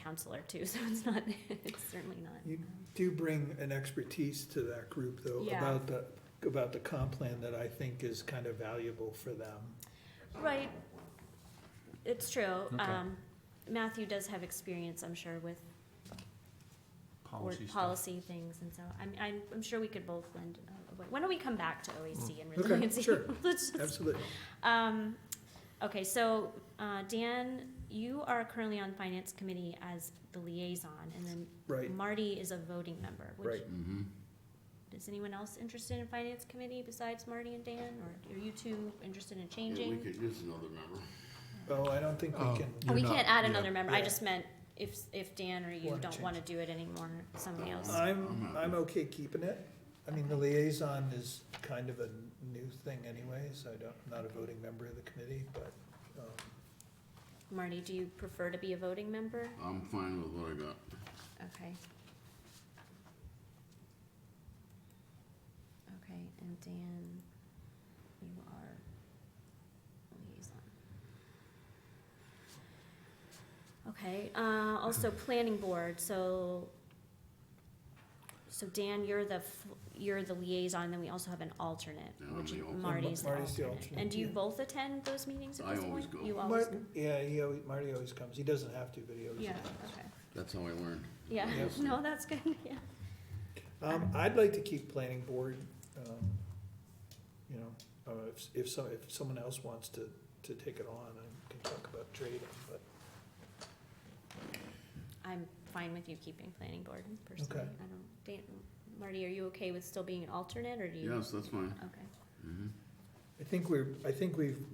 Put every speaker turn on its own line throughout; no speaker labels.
counselor too, so it's not, it's certainly not.
You do bring an expertise to that group though,
Yeah.
about the, about the comp plan that I think is kind of valuable for them.
Right, it's true.
Okay.
Um, Matthew does have experience, I'm sure, with board
Policy stuff.
policy things, and so I'm, I'm, I'm sure we could both lend. uh, Why don't we come back to
Mm.
OAC and
Okay,
resiliency?
sure.
Let's just-
Absolutely.
Um, okay, so, uh, Dan, you are currently on finance committee as the liaison, and then
Right.
Marty is a voting member, which,
Right.
Mm-hmm.
is anyone else interested in finance committee besides Marty and Dan, or are you two interested in
Yeah, we
changing?
could use another member.
Oh, I don't think we
Oh.
can,
Oh, We
You're not-
can't add
yeah.
another member, I
Yeah.
just meant if, if Dan or you
Wanna
don't
change.
wanna do it anymore, somebody else.
I'm, I'm okay keeping it. I mean, the liaison is kind of a new thing anyways. I don't, I'm not a voting member of the committee, but, um,
Marty, do you prefer to be a voting member?
I'm fine with what I got.
Okay. Okay, and Dan, you are liaison. Okay, uh, also planning board, so, so Dan, you're the, f- you're the liaison, then we also have an alternate,
Yeah, I'm
which
the alternate.
Marty's the alternate.
Marty's the alternate,
And do you
yeah.
both attend those meetings at
I
this point?
always go.
You always,
Mar- Yeah, he always, Marty always comes. He doesn't have to, but he always
yeah,
comes.
okay,
That's how I learned.
yeah,
Yes.
no, that's good, yeah.
Um, I'd like to keep planning board, um, you know, uh, if, if so, if someone else wants to, to take it on, I can talk about trading, but.
I'm fine with you keeping planning board personally.
Okay.
I don't, Dan, Marty, are you okay with still being an alternate or do you?
Yes, that's fine.
Okay,
Mhm.
I think we're, I think we've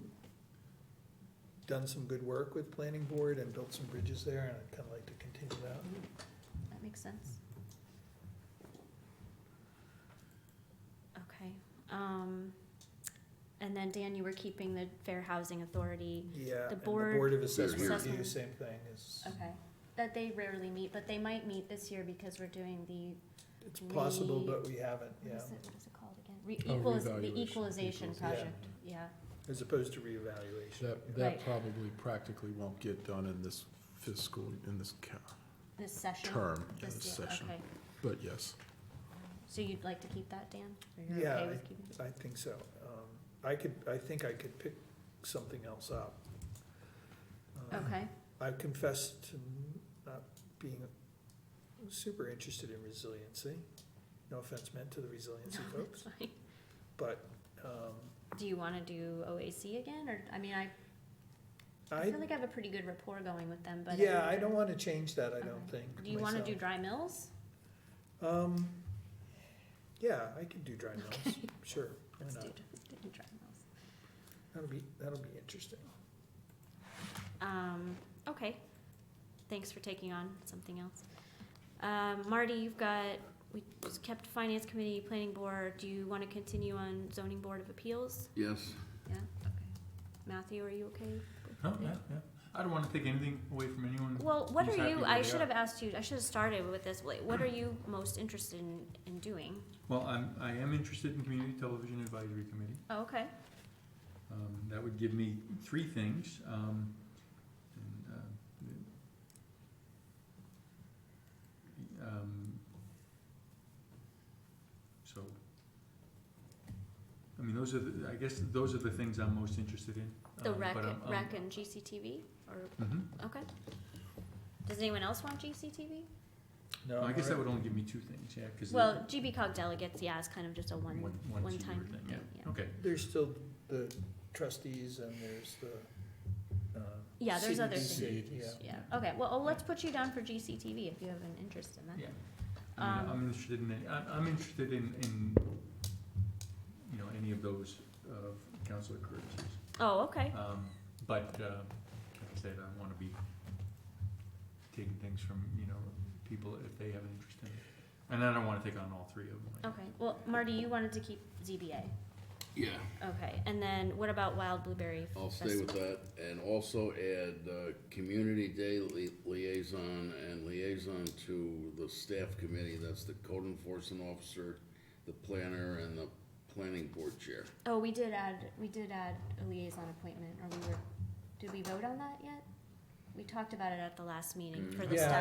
done some good work with planning board and built some bridges there, and I'd kinda like to continue that.
that makes sense. Okay, um, and then Dan, you were keeping the Fair Housing Authority.
Yeah,
The
and the
board-
board of assessment
Here.
review, same thing, is,
Okay. That they rarely meet, but they might meet this year because we're doing the,
it's possible,
We-
but we haven't,
what
yeah,
is it, what is it called again?
Oh,
Re- equalis-
revaluation,
the equalization
equalization.
project, yeah.
as opposed to reevaluation.
That,
Right.
that probably practically won't get done in this fiscal, in this ca-
This session.
term, in
This
this
year,
session.
okay.
But yes,
So you'd like to keep that, Dan? Or you're
Yeah,
okay
I-
with keeping?
I think so. Um, I could, I think I could pick something else up. Um,
Okay.
I confess to not being super interested in resiliency. No offense meant to the resiliency
No,
folks,
that's fine.
but um,
Do you wanna do OAC again, or, I mean, I, I
I,
feel like I have a pretty good rapport going with them, but.
yeah, I don't want to change that, I don't
Okay.
think.
Do you wanna do
myself.
dry mills?
Um, yeah, I could do dry mills, sure, why
Let's
not?
do, d- do dry mills.
That'll be, that'll be interesting.
Um, okay, thanks for taking on something else. Um, Marty, you've got, we just kept finance committee, planning board, do you wanna continue on zoning board of appeals?
Yes,
Yeah, okay. Matthew, are you okay? with
Oh,
that?
yeah, yeah. I don't want to take anything away from anyone.
Well, what
Who's
are
happy
you,
where
I
they
should
are.
have asked you, I should have started with this, like, what are you most interested in, in doing?
Well, I'm, I am interested in Community Television Advisory Committee.
Oh, okay.
Um, that would give me three things. Um, and, uh, the- um, so, I mean, those are, the, I guess, those are the things I'm most interested in.
The
um,
rec,
but I'm- I'm-
rec and GCTV, or,
Mhm.
okay. Does anyone else want GCTV?
No,
Well, I
I'm
guess that
all
would
right.
only give me two things, yeah, because.
Well, GBCOG delegates, yeah, it's kind of just a one,
One- one
one time
senior thing,
thing,
yeah.
yeah.
Okay,
There's still the trustees and there's the, uh.
Yeah, there's other
CDC,
things.
yeah.
Yeah, okay, well, oh, let's put you down for GCTV if you have an interest in that.
Yeah. I mean,
Um,
I'm interested in, any- I'm, I'm interested in, in, you know, any of those, uh, counselor careers.
Oh, okay,
Um, but, uh, like I said, I wanna be taking things from, you know, people if they have an interest in it. And I don't wanna take on all three of them.
okay, well, Marty, you wanted to keep ZBA,
yeah,
okay, and then what about Wild Blueberry
I'll stay
Festival?
with that and also add, uh, community day li- liaison and liaison to the staff committee. That's the code enforcement officer, the planner and the planning board chair.
Oh, we did add, we did add a liaison appointment, or we were, did we vote on that yet? We talked about it at the last meeting for the
Yeah,
staff